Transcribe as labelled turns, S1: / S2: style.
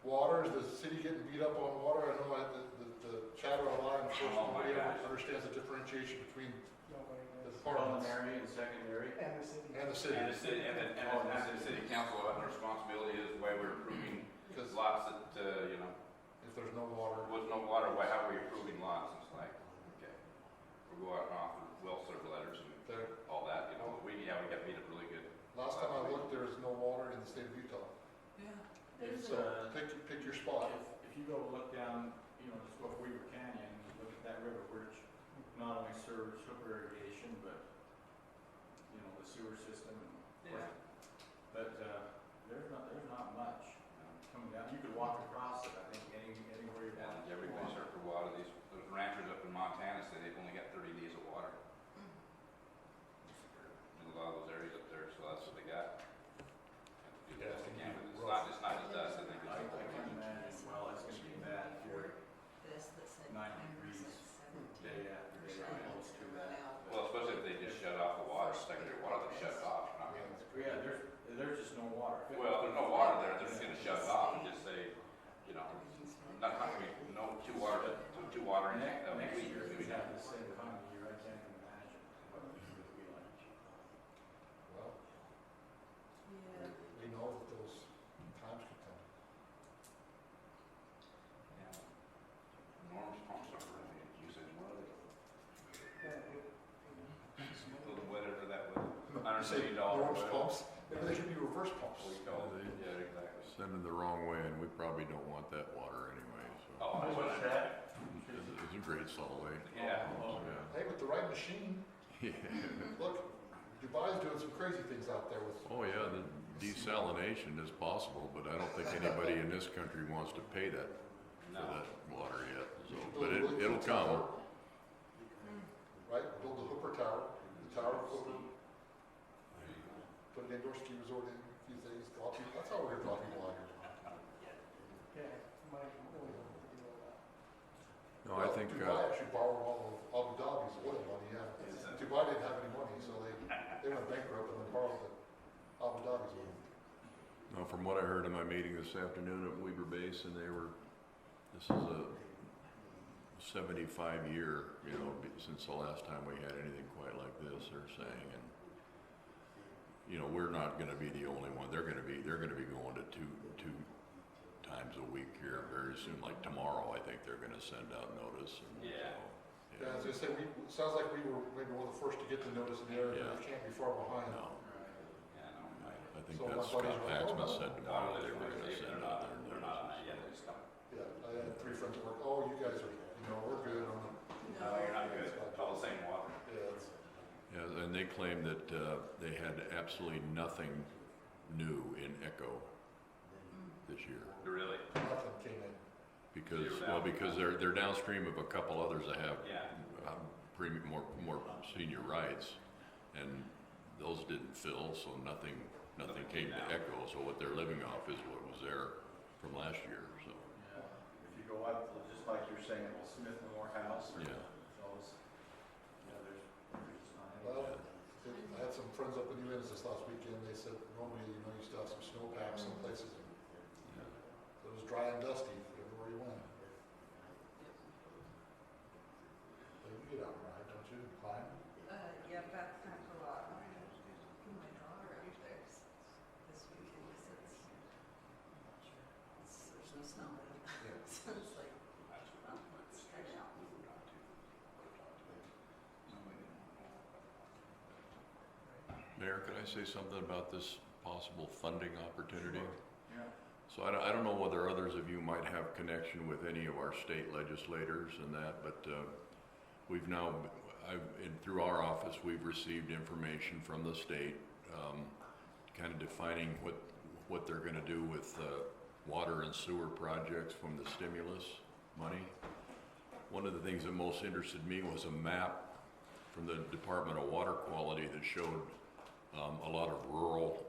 S1: Water, is the city getting beat up on water? I know I, the, the- the chatter online, of course,
S2: Oh my
S1: nobody ever
S2: gosh.
S1: understands the differentiation between
S3: Nobody
S1: the
S3: knows.
S1: departments
S4: Primary and secondary.
S3: And the city.
S1: and the city.
S2: And the city, and the, and the- and the city council having responsibility is the way we're approving
S1: Because
S2: lots that, uh, you know,
S1: if there's no water,
S2: was no water, why, how are we approving lots? It's like, okay, we'll go out and offer well served letters and
S1: there,
S2: all that, you know, but we, yeah, we got beat up really good.
S1: last time I looked, there is no water in the state of Utah.
S2: Yeah.
S5: There's
S1: So
S5: a,
S1: pick, pick your
S4: uh, If,
S1: spot.
S4: if you go look down, you know, just off Weaver Canyon, look at that river, which not only serves hooker irrigation, but, you know, the sewer system and.
S2: Yeah.
S4: But, uh, there's not, there's not much coming down. You could walk across it, I think, any, anywhere you want.
S2: And everybody served for water, these those ranchers up in Montana say they've only got thirty days of water. In a lot of those areas up there, so that's what they got. Have to do the best they can, but It's not, it's not just us, I think it's
S4: I,
S2: the
S4: I
S2: whole
S4: can
S2: country.
S4: imagine, well, it's gonna be bad here
S5: this that said.
S4: Nine
S5: members
S4: degrees.
S5: at
S4: day after day, close to that.
S2: Well, especially if they just shut off the water, secondary water, they shut it off,
S1: I
S2: not
S1: mean,
S4: Yeah, there's, there's just no water.
S2: Well, there's no water there, they're just gonna shut it off and just say, you know, not, not gonna be, no two water, two, two water in
S4: Next,
S2: that
S4: next
S2: week,
S4: year,
S2: or
S4: we
S2: maybe
S4: have the same kind of year, I can't even imagine what it would be like.
S1: well,
S5: Yeah.
S1: we know that those times could come.
S2: Norm's pumps are really in usage, what are they? A
S3: Yeah.
S2: little wetter than that was, I
S1: You
S2: don't
S1: say
S2: need all the
S1: Reverse
S2: oil.
S1: pumps, maybe they should be reverse pumps.
S2: we called it, yeah, exactly.
S6: Sending the wrong way, and we probably don't want that water anyway, so.
S2: Oh, that's what I said.
S6: It's it's a great salt lake,
S2: Yeah.
S4: Oh,
S6: yeah.
S1: Hey, with the right machine,
S6: Yeah,
S1: look, Dubai's doing some crazy things out there with,
S6: oh yeah, the desalination is possible, but I don't think anybody in this country wants to pay that, for
S2: No,
S6: that water yet, so,
S1: You should
S6: but
S1: build a
S6: it,
S1: really
S6: it'll
S1: cool
S6: come.
S1: tower, Right, build the Hooper Tower, the Tower of Hooper, put an indoor ski resort in, a few things, draw people, that's how we're gonna draw people out here.
S3: Yeah, Mike, we'll do all that.
S6: No, I
S1: Well,
S6: think, uh,
S1: Dubai actually borrowed all of Abu Dhabi's oil money, yeah.
S2: Is that-
S1: Dubai didn't have any money, so they, they went bankrupt and then borrowed the Abu Dhabi's oil.
S6: no, from what I heard in my meeting this afternoon at Weber Basin, they were, this is a seventy-five year, you know, be- since the last time we had anything quite like this, they're saying, and you know, we're not gonna be the only one, they're gonna be, they're gonna be going to two, two times a week here very soon, like tomorrow, I think they're gonna send out notice and so.
S2: Yeah.
S1: Yeah, as I say, we, it sounds like we were maybe one of the first to get the notice in the area, but we can't be far behind.
S6: No,
S2: yeah, no, I,
S6: I think
S1: So
S6: that's
S1: my
S6: Scott
S1: buddies were like, "Oh, no."
S6: Baxman said
S2: I don't know,
S6: tomorrow, they
S2: they're
S6: were
S2: not,
S6: gonna
S2: they're
S6: send
S2: not,
S6: out their
S2: they're not on that
S6: notices.
S2: yet, they just don't.
S1: Yeah, I had three friends that were like, oh, you guys are, you know, we're good, I'm like,
S2: No, you're not good, it's all the same water.
S1: yeah, it's,
S6: Yeah, and they claimed that, uh, they had absolutely nothing new in Echo this year.
S2: Really?
S1: nothing came in.
S6: Because,
S2: Zero
S6: well,
S2: down.
S6: because they're, they're downstream of a couple others that have
S2: Yeah.
S6: um, premium, more, more senior rights, and those didn't fill, so nothing, nothing came to Echo, so what they're living off is what was there from last year, so,
S4: Yeah, if you go up, just like you're saying, well, Smith Moore House or
S6: yeah.
S4: those, yeah, there's, there's just not any.
S1: Well, I had some friends up in New Orleans this last weekend, they said, normally, you know, you still have some snowpack some places, it was dry and dusty everywhere you went. But you get out and ride, don't you, climb?
S5: Uh, yeah, back pack a lot. My daughter up there s- this weekend was at the- it's- There's no snow. So it's like, well, let's try it out.
S6: Mayor, could I say something about this possible funding opportunity?
S4: Yeah.
S6: So I don't, I don't know whether others of you might have connection with any of our state legislators and that, but, uh, we've now, I, and through our office, we've received information from the state, um, kind of defining what, what they're gonna do with, uh, water and sewer projects from the stimulus money. One of the things that most interested me was a map from the Department of Water Quality that showed, um, a lot of rural